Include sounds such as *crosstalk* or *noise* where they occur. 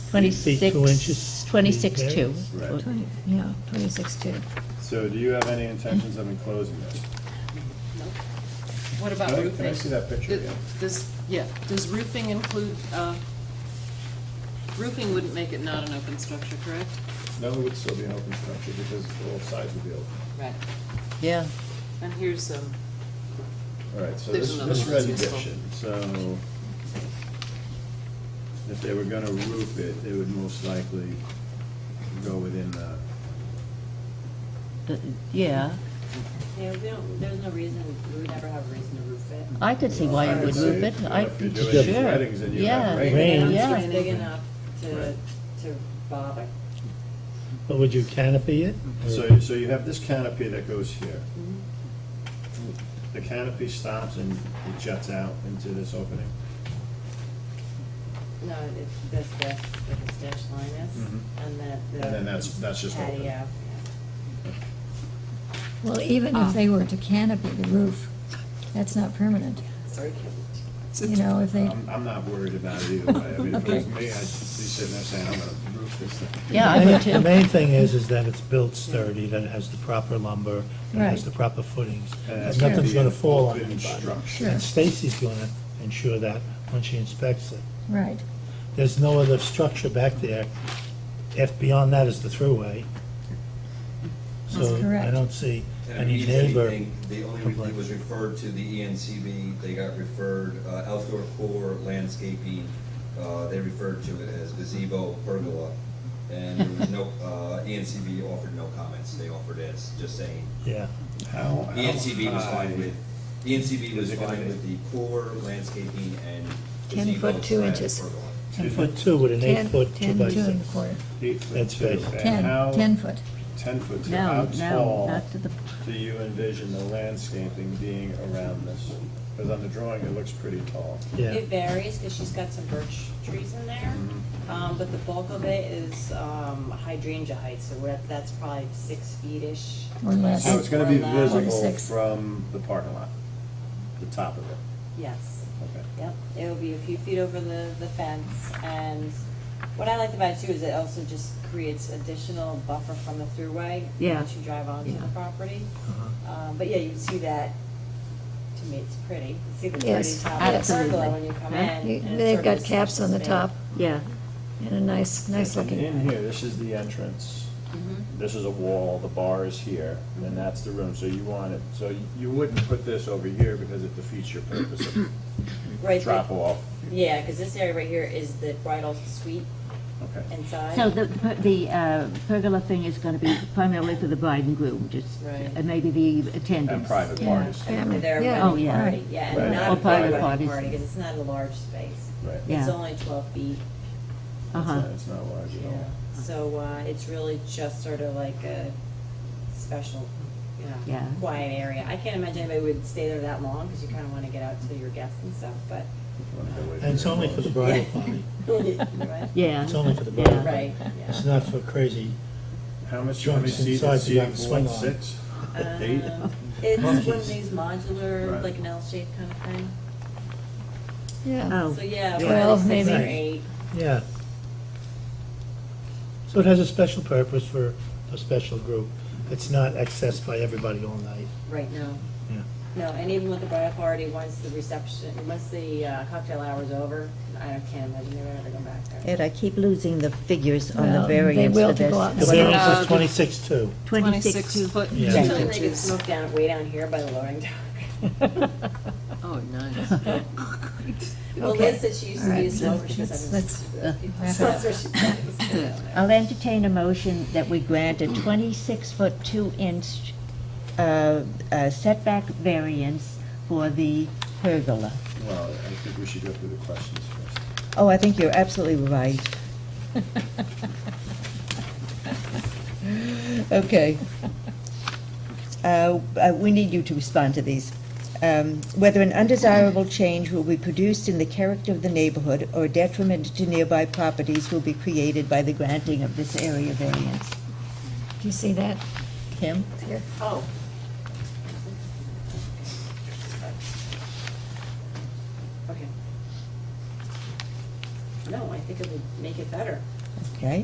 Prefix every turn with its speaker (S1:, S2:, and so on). S1: Eight feet, two inches.
S2: 26, 26 two.
S3: Right.
S4: Twenty, yeah, twenty-six two.
S3: So do you have any intentions of enclosing this?
S5: What about
S3: Can I-
S5: roofing?
S3: Can I see that picture
S5: Th-
S3: again?
S5: Does, yeah, does roofing include, uh, roofing wouldn't make it not an open structure, correct?
S3: No, it would still be an open structure because all sides would be open.
S5: Right.
S2: Yeah.
S5: And here's, um,
S3: All right, so this,
S5: There's another
S3: this
S5: one that's useful.
S3: rendition, so if they were gonna roof it, they would most likely go within the,
S2: Uh, Yeah,
S6: Yeah, we don't, there's no reason, we would never have a reason to roof it.
S2: I could see why
S3: I
S2: you
S3: would
S2: would
S3: say,
S2: roof it,
S3: you know,
S2: I,
S3: if you're doing
S2: sure.
S3: these weddings and you have
S2: Yeah,
S3: rain.
S2: yeah,
S1: Rain.
S6: It's
S2: yeah.
S6: just big enough to,
S3: Right.
S6: to bother.
S1: But would you canopy it? or-
S3: so, so you have this canopy that goes here.
S5: Mm-hmm.
S3: The canopy stops and it juts out into this opening.
S6: No, it's this, this, where the dash line is,
S3: Mhm.
S6: and that, the.
S3: And then that's- that's just open.
S6: Patio.
S4: Well, even if they were to canopy the roof, that's not permanent.
S6: Sorry,
S4: You know, if they,
S3: I'm, I'm not worried about it either way. I mean, if it was
S4: Okay.
S3: me, I'd be sitting there saying, I'm gonna roof this thing.
S2: Yeah, I
S1: The
S2: would
S1: main-
S2: too.
S1: The main thing is, is that it's built sturdy, that it has the proper lumber, that it has
S4: Right.
S1: the proper footings,
S3: And
S1: and
S3: it's gonna
S1: nothing's
S3: be an
S1: gonna fall on
S3: Uh, open
S1: anybody.
S3: structure.
S1: And Stacy's gonna ensure that when she inspects it.
S4: right,
S1: There's no other structure back there. If beyond that is the throughway. So
S4: That's correct.
S1: I don't see
S7: And
S1: any
S7: if you need
S1: neighbor
S7: anything, The only thing
S1: complaint.
S7: was referred to the E ENCB, they got referred, uh, outdoor core landscaping, uh, they referred to it as gazebo pergola. And there was no, uh, ENCB offered no comments, they offered as just saying, E
S1: Yeah,
S3: How- how
S7: ENCB was
S3: high-
S7: fine with, E ENCB was
S3: Uh, Is it gonna
S7: fine
S3: be-
S7: with the core landscaping and
S4: Ten
S7: gazebo
S4: foot, two
S7: slash
S4: inches.
S7: pergola.
S1: ten foot two with an eight
S4: ten,
S1: foot two
S4: ten,
S1: by
S4: two and a
S1: six.
S4: quarter,
S3: Eight foot
S1: That's
S3: two.
S1: basic.
S3: And how-
S4: ten, ten foot.
S3: Ten foot two, how
S2: No, no,
S3: tall
S2: not to the,
S3: do you envision the landscaping being around this? Because on the drawing, it looks pretty tall.
S1: Yeah,
S6: It varies, because she's got some birch trees in there,
S3: Mm-hmm.
S6: um, but the bulk of it is, um, hydrangea height, so we're, that's probably six feet-ish.
S4: Or less.
S3: So it's gonna be
S6: Or less.
S3: visible
S4: Six.
S3: from the parking lot, the top of it.
S6: Yes.
S3: Okay.
S6: Yep, it'll be a few feet over the, the fence, and what I liked about it too is it also just creates additional buffer from the throughway.
S2: Yeah.
S6: Once you drive onto the
S2: Yeah.
S6: property.
S1: Uh-huh.
S6: Um, but yeah, you see that, to me, it's pretty, you see the pretty
S4: Yes,
S6: top of the
S2: absolutely.
S6: pergola when you come in.
S2: Huh?
S6: and
S4: You-
S6: it
S4: They've
S6: sort
S4: got
S6: of
S4: caps on the
S6: span.
S4: top
S2: yeah,
S4: and a nice, nice
S3: And
S4: looking.
S3: In here, this is the entrance,
S7: Mm-hmm.
S3: this is a wall, the bar is here, and that's the room, so you want it, so you wouldn't put this over here because it defeats your purpose
S6: Right,
S3: of
S6: but-
S3: drop off.
S6: Yeah, because this area right here is the bridal suite
S3: Okay.
S6: inside.
S2: So the, the uh, pergola thing is going to be primarily for the bride and groom, just,
S6: Right.
S2: and maybe the
S3: And
S2: attendants.
S3: private
S6: Yeah,
S3: parties.
S4: Family,
S6: Their
S4: yeah.
S6: wedding
S2: Oh, yeah.
S6: party, yeah,
S3: Right.
S6: and
S3: Or
S6: not a big
S3: private
S6: wedding party,
S2: parties.
S6: because it's not a large space.
S3: Right.
S6: It's
S2: Yeah.
S6: only twelve feet.
S2: Uh-huh.
S3: It's not large at all.
S6: Yeah, so, uh, it's really just sort of like a special, you know,
S2: Yeah.
S6: quiet area. I can't imagine anybody would stay there that long, because you kind of want to get out to your guests and stuff,
S3: *laughs*
S6: but.
S1: and it's only for the
S4: *laughs*
S1: bridal party.
S6: Right?
S2: Yeah.
S1: It's only for the
S2: Yeah.
S1: bride.
S6: Right,
S1: It's
S6: yeah.
S1: not for crazy
S3: How much, how
S1: Joints
S3: many seats
S1: inside,
S3: is
S1: you have
S3: seating
S1: to
S3: one,
S1: swing on.
S3: six? Eight?
S6: Um, It's one of
S1: Monkeys.
S6: these modular,
S3: Right.
S6: like an L-shaped kind of thing.
S4: Yeah,
S2: Oh,
S6: So, yeah,
S4: Twelve,
S6: probably six or
S1: maybe.
S6: eight.
S1: Yeah. So it has a special purpose for a special group. It's not accessed by everybody all night.
S6: Right, no.
S1: Yeah.
S6: No, and even with the bridal party, once the reception, once the uh, cocktail hour's over, I can't imagine they're ever going back there.
S2: Ed, I keep losing the figures on the
S4: Well, they
S2: variance
S4: will
S2: for
S4: go out
S1: The
S4: and
S2: this.
S4: What see.
S1: variance
S5: about
S1: is
S5: the-
S1: twenty-six two.
S2: Twenty-six. two-
S5: foot
S1: Yeah.
S6: Usually
S2: Yeah.
S6: they get smoked down, way down here by the lowering
S4: *laughs*
S6: dock.
S5: Oh, nice.
S6: Well,
S4: Okay.
S6: Liz said she used
S4: All
S6: to be a
S4: right,
S6: smoker, she
S4: let's-
S6: goes, I'm
S4: let's,
S6: just.
S4: uh, wrap
S6: So
S4: it
S6: that's where she-
S4: *laughs*
S2: I'll entertain a motion that we grant a twenty-six foot two inch uh, uh, setback variance for the pergola.
S3: Well, I think we should go through the questions first.
S2: Oh, I think you're absolutely right. *laughs*
S4: *laughs*
S2: Okay. Uh, uh, We need you to respond to these. Um, Whether an undesirable change will be produced in the character of the neighborhood or detriment to nearby properties will be created by the granting of this area variance.
S4: do you see that?
S2: Kim?
S4: Here.
S6: Oh. Okay. No, I think it would make it better.
S2: okay?